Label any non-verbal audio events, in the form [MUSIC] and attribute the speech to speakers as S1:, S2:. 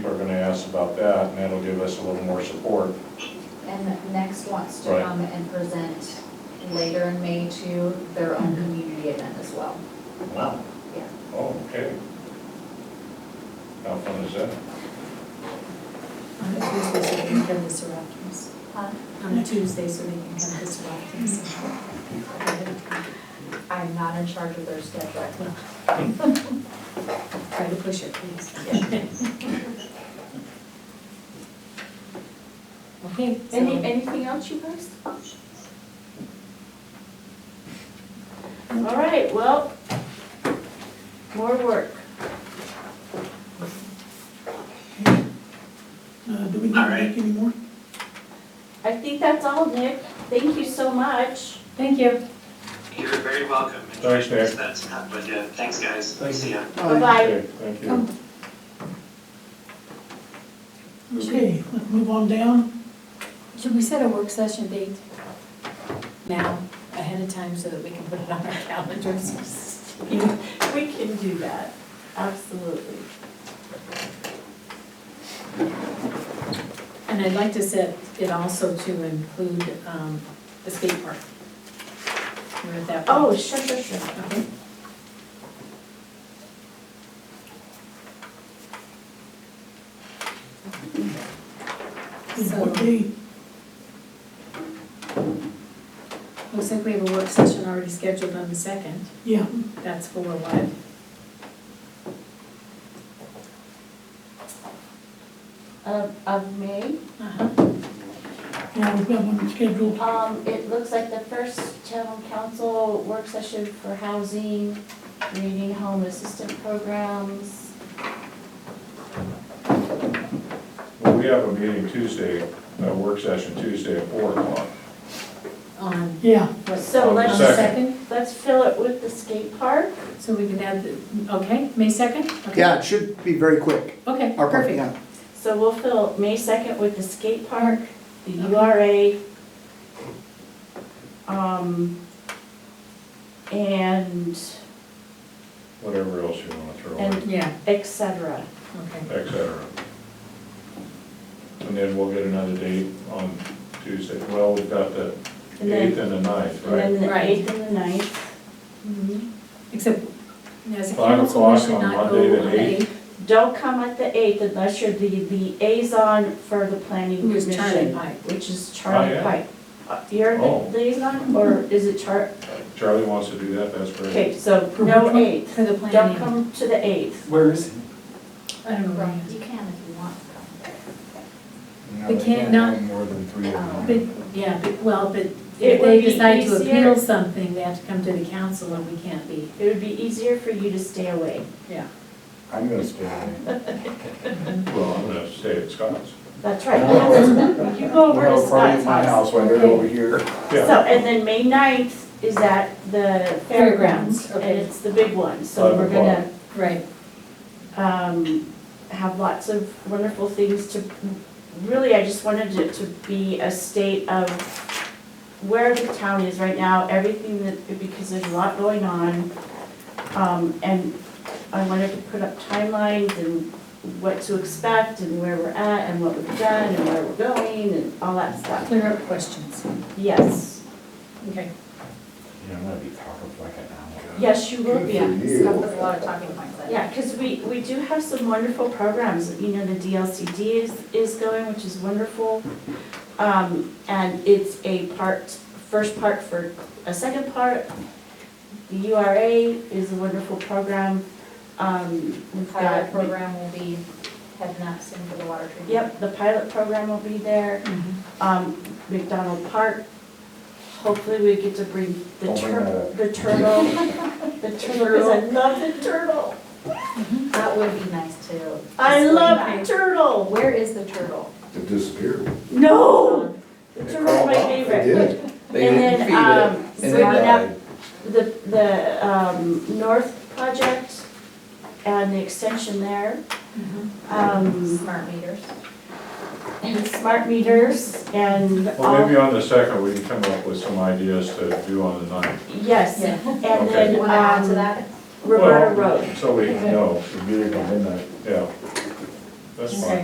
S1: We're gonna ask about that, and that'll give us a little more support.
S2: And the next wants to
S1: Right.
S2: come and present later in May to their own community event as well.
S1: Wow.
S2: Yeah.
S1: Oh, okay. How fun is that?
S3: On a Tuesday, so they can come to Soroki's.
S2: Huh?
S3: On a Tuesday, so they can come to Soroki's.
S2: I'm not in charge of their schedule.
S3: Try to push it, please. [LAUGHS] Okay, so,
S2: Any, anything else you guys?
S4: All right, well, more work.
S5: Uh, do we need to make any more?
S4: I think that's all, Nick. Thank you so much.
S3: thank you.
S6: You're very welcome. And
S1: Thanks, Nick.
S6: That's not, but yeah, thanks, guys.
S1: Thank
S6: See ya.
S4: Bye-bye.
S1: Okay, Thank you.
S5: Okay, let's move on down.
S3: Should we set a work session date now, ahead of time, so that we can put it on our calendars?
S4: [LAUGHS] We can do that, absolutely.
S3: And I'd like to set it also to include um, the skate park. We're at that.
S4: Oh,
S3: point.
S4: sure, sure, sure.
S3: Okay.
S5: Is what
S3: So-
S5: day?
S3: Looks like we have a work session already scheduled on the second.
S5: Yeah,
S3: That's for what?
S4: Of, of May,
S3: Uh-huh.
S5: yeah, we've got one scheduled.
S4: um, it looks like the first town council work session for housing, reading home assistant programs.
S1: Well, we have a meeting Tuesday, a work session Tuesday at four o'clock.
S3: On
S5: Yeah,
S3: what?
S4: So
S1: On the
S3: On
S4: let's,
S3: the
S1: second.
S3: second?
S4: let's fill it with the skate park.
S3: So we can add the, okay, May second?
S7: Yeah, it should be very quick.
S3: Okay,
S7: Our part,
S3: perfect.
S7: yeah.
S4: So we'll fill May second with the skate park, the URA. Um, and
S1: Whatever else you wanna throw in,
S4: And-
S3: Yeah,
S4: et cetera.
S3: okay.
S1: et cetera. And then we'll get another date on Tuesday. Well, we've got the
S4: And then-
S1: eighth and the ninth,
S4: And then
S1: right?
S4: the
S3: Right.
S4: eighth and the ninth.
S3: Mm-hmm. Except, as a
S1: Five
S3: council, we
S1: o'clock
S3: should
S1: on
S3: not
S1: Monday
S3: go
S1: the
S3: on the
S1: eighth.
S3: eighth.
S4: Don't come at the eighth unless you're the liaison for the planning
S3: Who is Charlie
S4: commission.
S3: Pike.
S4: Which is Charlie
S1: Oh, yeah.
S4: Pike. Uh, You're
S1: Oh.
S4: the liaison, or is it Char,
S1: Charlie wants to do that, that's great.
S4: okay, so no eighth.
S3: For the
S4: Don't
S3: planning.
S4: come to the eighth.
S8: Where is it?
S3: I don't know where
S2: Right,
S3: he
S2: you
S3: is.
S2: can if you want.
S3: They can't not,
S9: more than three of them.
S3: but, yeah, but, well, but
S4: It
S3: if
S4: would
S3: they
S4: be
S3: decide to
S4: easier.
S3: appeal something, they have to come to the council and we can't be.
S4: It would be easier for you to stay away.
S3: Yeah.
S9: I'm gonna stay away.
S1: Well, I'm gonna stay at Scott's.
S4: That's right.
S9: No.
S4: You go over to
S9: Well, probably
S4: Scott's
S9: at my
S4: house.
S9: house while they're
S4: Okay.
S9: over here.
S1: Yeah,
S4: So, and then May 9th is at the
S3: Fairgrounds,
S4: fairgrounds, and
S3: okay.
S4: it's the big one, so
S1: Five
S4: we're gonna,
S3: Right,
S4: um, have lots of wonderful things to, really, I just wanted it to be a state of where the town is right now, everything that, because there's a lot going on. Um, and I wanted to put up timelines and what to expect and where we're at and what we've done and where we're going and all that stuff.
S3: clear up questions.
S4: Yes,
S3: Okay.
S9: Yeah, I'm gonna be talking for like an hour.
S4: yes, you will be.
S9: Good for you.
S2: Scott does a lot of talking points. I think.
S4: Yeah, because we, we do have some wonderful programs, you know, the DLCD is, is going, which is wonderful. Um, and it's a part, first part for a second part. The URA is a wonderful program. Um,
S2: The
S4: we've
S2: pilot
S4: got,
S2: program will be heading up soon for the water treatment.
S4: yep, the pilot program will be there.
S2: Mm-hmm.
S4: Um, McDonald Park, hopefully we get to bring the
S9: Don't bring that
S4: turtle,
S9: up.
S4: the
S2: [LAUGHS]
S4: turtle, the turtle, because I love the turtle.
S2: That would be nice too.
S4: I
S2: Just
S4: love
S2: like-
S4: the turtle.
S2: Where is the turtle?
S9: It disappeared.
S4: No! The
S9: It
S4: turtle's
S9: crawled
S4: my
S9: up. It
S4: favorite.
S9: did.
S8: They
S4: And
S8: didn't
S4: then,
S8: feed it,
S4: um,
S8: and
S4: so
S8: it
S4: we have-
S8: died.
S4: The, the, um, North Project and the extension there.
S2: Mm-hmm.
S4: Um,
S2: Smart meters.
S4: and smart meters and
S1: well, maybe
S4: all,
S1: on the second, we can come up with some ideas to do on the ninth.
S4: yes.
S3: Yeah.
S4: And
S1: Okay.
S2: You
S4: then,
S2: want to add to
S4: um,
S2: that?
S4: Roberta
S1: Well,
S4: Road.
S1: So we can know,
S9: It'd be like a midnight.
S1: yeah. that's
S3: Okay.
S1: fine.